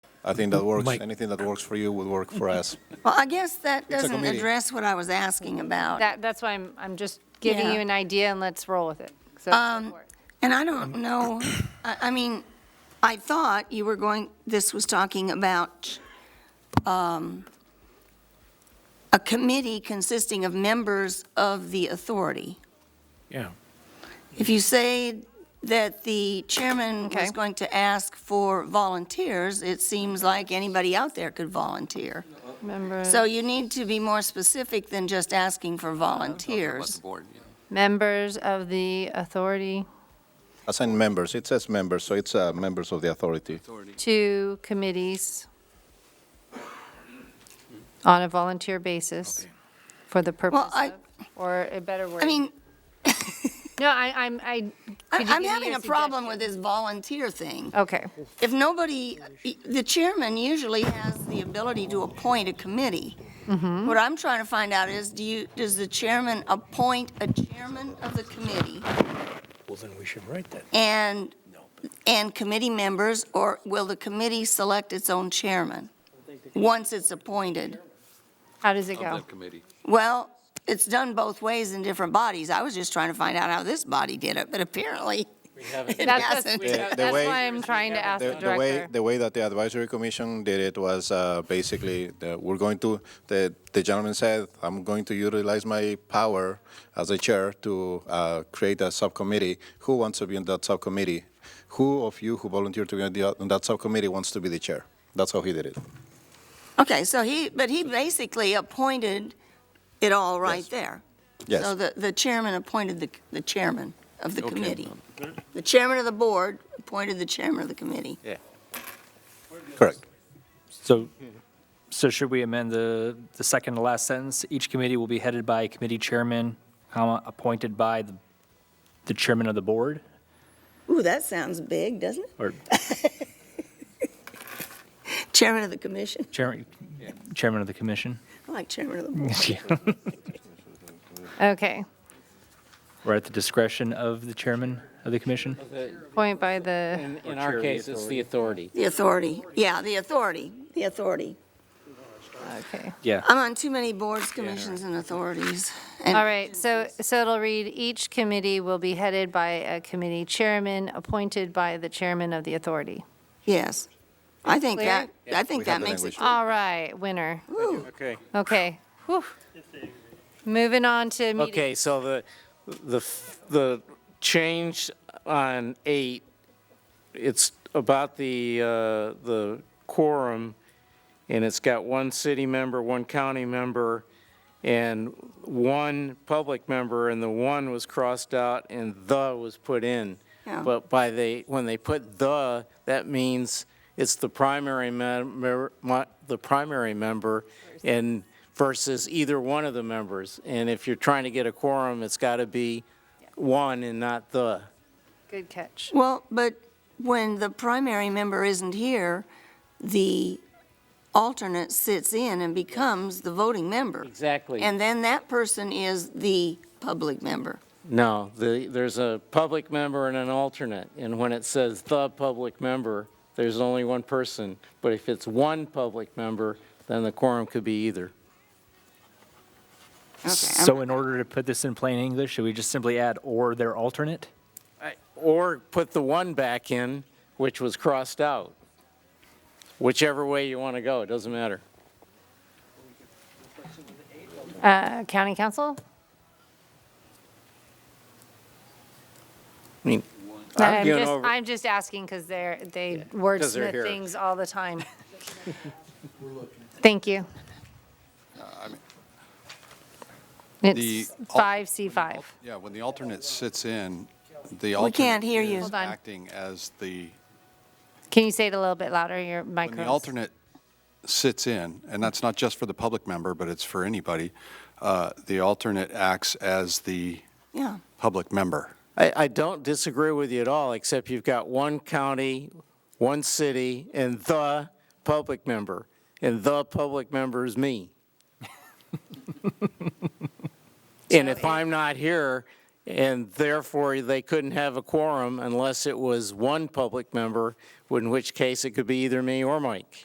I think that works. Mike. Anything that works for you will work for us. Well, I guess that It's a doesn't committee. address what I was asking about. That, that's why I'm, I'm just giving Uh, Yeah. Um, you an idea and let's roll with it. So, go for it. And I don't know, I, I mean, I thought you were going, this was talking about um, a committee consisting of members of the authority. Yeah. If you say that the chairman Okay. was going to ask for volunteers, it seems like anybody out there could volunteer. member, So you need to be more specific than just asking for volunteers. members of the authority Assign members. It says members, so it's uh, members of the authority. to committees on a volunteer basis for the purpose I- of, or a better word. I mean, No, I, I'm, I. I- could you I'm give me having your a problem suggestion? with this volunteer thing. Okay, If nobody, the chairman usually has the ability to appoint a committee. Mm-hmm. What I'm trying to find out is, do you, does the chairman appoint a chairman of the committee Well, then we should write that. and, and committee members, or will the committee select its own chairman once it's appointed? how does it go? Well, it's done both ways in different bodies. I was just trying to find out how this body did it, but apparently it That's, that's, hasn't. The- the that's way- why I'm trying to ask the The, the way director. the way that the advisory commission did it was uh, basically the, we're going to the the gentleman said I'm going to utilize my power as a chair to uh, create a subcommittee. Who wants to be in that subcommittee? Who of you who volunteered to be on, the, on that subcommittee wants to be the chair? That's how he did it. Okay, so he, but he basically appointed it all right Yes. there. Yes. So the, the chairman appointed the, the chairman of the committee. The chairman of the board appointed the chairman of the committee. Correct. So, so should we amend the, the second to last sentence? Each committee will be headed by a committee chairman, comma, appointed by the, the chairman of the board? Ooh, that sounds big, doesn't it? Or Chairman of the commission, chairman, chairman of the commission? I like chairman of the board. Okay, Or at the discretion of the chairman of the commission? point by the, In, in our case, it's the authority. The authority, yeah, the authority, the authority. okay. Yeah, I'm on too many boards, commissions, and authorities. and- All right, so, so it'll read, each committee will be headed by a committee chairman appointed by the chairman of the authority. Yes. I think Clear? that, I think We have that the makes it, language. All right, winner. ooh, Okay. Whew. Moving on to meeting. Okay, so the, the, f- the change on eight, it's about the, uh, the quorum, and it's got one city member, one county member, and one public member, and the one was crossed out and the was put in. Yeah. But by the, when they put the, that means it's the primary member, the primary member and versus either one of the members. And if you're trying to get a quorum, it's got to be one and not the. Good catch. well, but when the primary member isn't here, the alternate sits in and becomes the voting member. Exactly. And then that person is the public member. No, the, there's a public member and an alternate. And when it says the public member, there's only one person. But if it's one public member, then the quorum could be either. Okay, I'm- so in order to put this in plain English, should we just simply add or their alternate? I- Or put the one back in, which was crossed out. Whichever way you want to go, it doesn't matter. Uh, County council? I mean, I'm arguing just, over- I'm just asking because they're, they wordsmith here. things all the time. Thank you. Uh, The It's al- five C five. Yeah, when the alternate sits in, the We can't alternate hear you. is Hold on. acting as the, Can you say it a little bit louder, your when the microphone? alternate sits in, and that's not just for the public member, but it's for anybody, uh, the alternate acts as the Yeah, public member. I, I don't disagree with you at all, except you've got one county, one city, and the public member. And the public member is me. And if I'm not here, and therefore they couldn't have a quorum unless it was one public member, in which case it could be either me or Mike.